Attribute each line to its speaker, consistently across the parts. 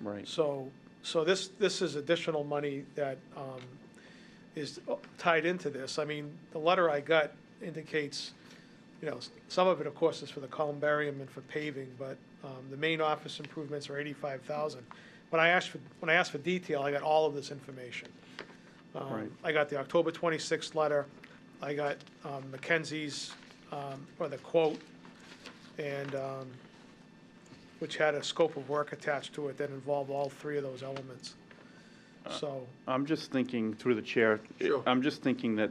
Speaker 1: Right.
Speaker 2: So, so this, this is additional money that um, is tied into this. I mean, the letter I got indicates, you know, s- some of it, of course, is for the columbarium and for paving, but um, the main office improvements are eighty-five thousand. When I asked, for when I asked for detail, I got all of this information. Um,
Speaker 1: Right.
Speaker 2: I got the October twenty-sixth letter, I got um, Mackenzie's, um, or the quote, and, um, which had a scope of work attached to it that involved all three of those elements. So,
Speaker 1: I'm just thinking, through the chair.
Speaker 3: Sure.
Speaker 1: I'm just thinking that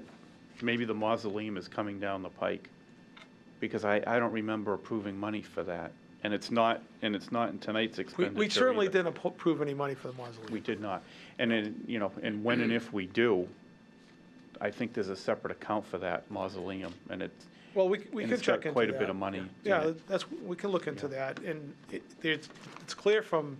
Speaker 1: maybe the mausoleum is coming down the pike, because I, I don't remember approving money for that. And it's not, and it's not in tonight's
Speaker 2: we,
Speaker 1: expenditure
Speaker 2: we certainly
Speaker 1: either.
Speaker 2: didn't appro- approve any money for the mausoleum.
Speaker 1: We did not. And then, you know, and when and if we do, I think there's a separate account for that mausoleum, and it's,
Speaker 2: Well, we, c- we
Speaker 1: and
Speaker 2: could
Speaker 1: it's
Speaker 2: check into
Speaker 1: got
Speaker 2: that.
Speaker 1: quite a bit of money. in
Speaker 2: Yeah,
Speaker 1: it.
Speaker 2: that's, we can look into that, and it, it's, it's clear from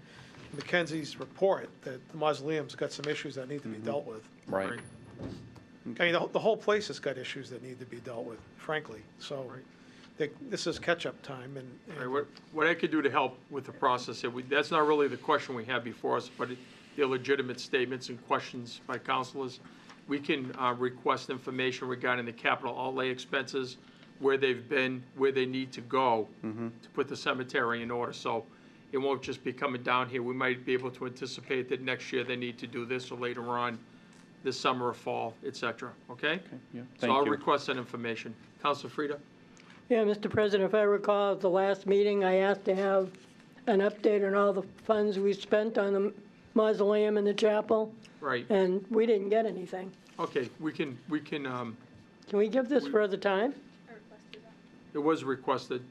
Speaker 2: Mackenzie's report that the mausoleum's got some issues that need to be
Speaker 1: Mm-hmm.
Speaker 2: dealt with.
Speaker 1: Right.
Speaker 2: I mean, the, whole- the whole place has got issues that need to be dealt with, frankly, so they- this is catch-up time, and. and-
Speaker 3: All right, what, what I could do to help with the process, if we, that's not really the question we have before us, but it- they're legitimate statements and questions by councilors. We can, uh, request information regarding the capital outlay expenses, where they've been, where they need to go
Speaker 1: Mm-hmm.
Speaker 3: to put the cemetery in order, so it won't just be coming down here. We might be able to anticipate that next year they need to do this, or later on, this summer or fall, et cetera, okay?
Speaker 1: yeah,
Speaker 3: So I'll
Speaker 1: thank you.
Speaker 3: request that information. Council Frida?
Speaker 4: Yeah, Mr. President, if I recall, at the last meeting, I asked to have an update on all the funds we spent on the mausoleum and the chapel,
Speaker 3: Right,
Speaker 4: and we didn't get anything.
Speaker 3: okay, we can, we can, um,
Speaker 4: Can we give this further time?
Speaker 3: It was requested.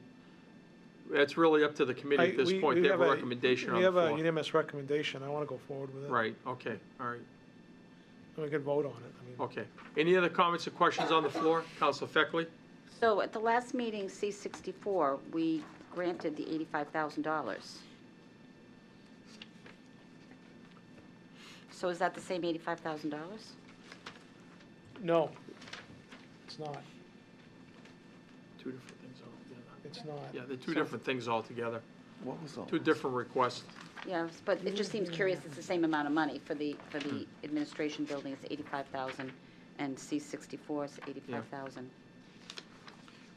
Speaker 3: It's really up to the committee
Speaker 2: I-
Speaker 3: at this
Speaker 2: we-
Speaker 3: point.
Speaker 2: we
Speaker 3: They have a
Speaker 2: have a-
Speaker 3: recommendation on
Speaker 2: We
Speaker 3: the
Speaker 2: have a
Speaker 3: floor.
Speaker 2: unanimous recommendation, I want to go forward with it.
Speaker 3: Right, okay, all right,
Speaker 2: And we can vote on it, I mean.
Speaker 3: okay. Any other comments or questions on the floor? Counsel Feckley?
Speaker 5: So at the last meeting, C-64, we granted the $85,000. So is that the same $85,000?
Speaker 2: No, it's not,
Speaker 3: Two different things altogether.
Speaker 2: it's not.
Speaker 3: Yeah, they're two different things altogether,
Speaker 1: What was all?
Speaker 3: two different requests.
Speaker 5: Yes, but it just seems curious, it's the same amount of money for the, for the administration building, it's 85,000, and C-64 is 85,000.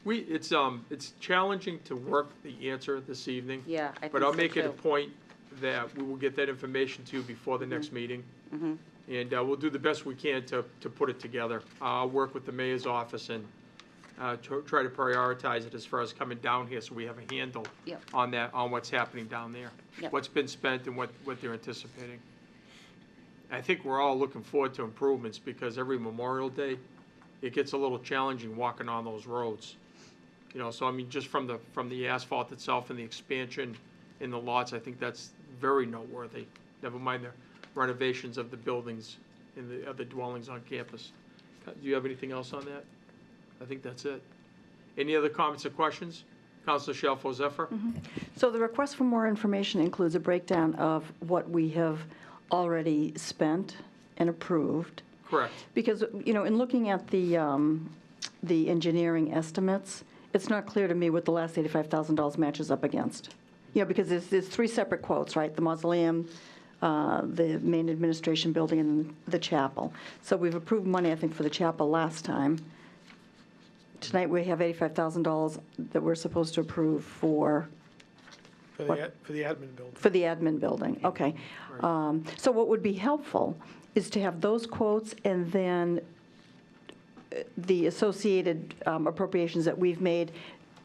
Speaker 3: We, it's, um, it's challenging to work the answer this evening.
Speaker 5: Yeah, I think
Speaker 3: But I'll
Speaker 5: so,
Speaker 3: make it a
Speaker 5: too.
Speaker 3: point that we will get that information to you before the
Speaker 5: Mm-hmm.
Speaker 3: next meeting. And uh, we'll do the best we can to, to put it together. Uh, I'll work with the mayor's office and uh, tr- try to prioritize it as far as coming down here so we have a handle
Speaker 5: Yep.
Speaker 3: on that, on what's happening down there.
Speaker 5: Yep.
Speaker 3: What's been spent and what, what they're anticipating. I think we're all looking forward to improvements because every Memorial Day, it gets a little challenging walking on those roads. You know, so I mean, just from the, from the asphalt itself and the expansion in the lots, I think that's very noteworthy. Never mind the renovations of the buildings and the other dwellings on campus. Uh, Do you have anything else on that? I think that's it. Any other comments or questions? Counselor Shalfo Zephyr?
Speaker 6: So the request for more information includes a breakdown of what we have already spent and approved.
Speaker 3: Correct.
Speaker 6: Because, you know, in looking at the, um, the engineering estimates, it's not clear to me what the last $85,000 matches up against. You know, because there's, there's three separate quotes, right? The mausoleum, uh, the main administration building, and the chapel. So we've approved money, I think, for the chapel last time. Tonight, we have $85,000 that we're supposed to approve for
Speaker 2: For the, ad- for the admin building.
Speaker 6: for the admin building, okay. Um, So what would be helpful is to have those quotes and then uh, the associated um, appropriations that we've made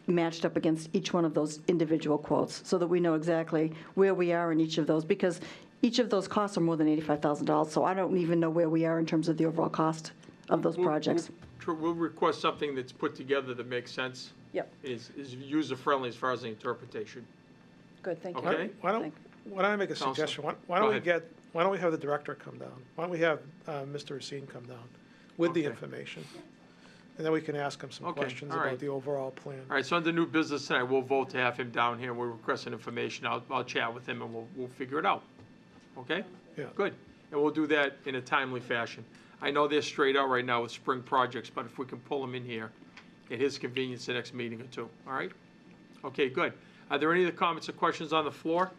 Speaker 6: matched up against each one of those individual quotes, so that we know exactly where we are in each of those, because each of those costs are more than $85,000, so I don't even know where we are in terms of the overall cost of those
Speaker 3: We'll-
Speaker 6: projects.
Speaker 3: we'll tr- We'll request something that's put together that makes sense.
Speaker 6: Yep,
Speaker 3: Is, is user-friendly as far as the interpretation.
Speaker 6: good, thank
Speaker 3: you.
Speaker 2: Why
Speaker 3: Okay.
Speaker 2: don't- why don't,
Speaker 6: Thank-
Speaker 2: why don't I make a
Speaker 3: Counsel.
Speaker 2: suggestion? Why why
Speaker 3: Go
Speaker 2: don't we
Speaker 3: ahead.
Speaker 2: get, why don't we have the director come down? Why don't we have uh, Mr. Racine come down with the
Speaker 3: Okay.
Speaker 2: information? And then we can ask him some
Speaker 3: Okay,
Speaker 2: questions
Speaker 3: all
Speaker 2: about
Speaker 3: right.
Speaker 2: the overall plan.
Speaker 3: All right, so under new business tonight, we'll vote to have him down here. We're requesting information. I'll, I'll chat with him and we'll, we'll figure it out. Okay?
Speaker 2: Yeah.
Speaker 3: Good. And we'll do that in a timely fashion. I know they're straight out right now with spring projects, but if we can pull them in here at his convenience the next meeting or two, all right? Okay, good. Are there any other comments or questions on the floor?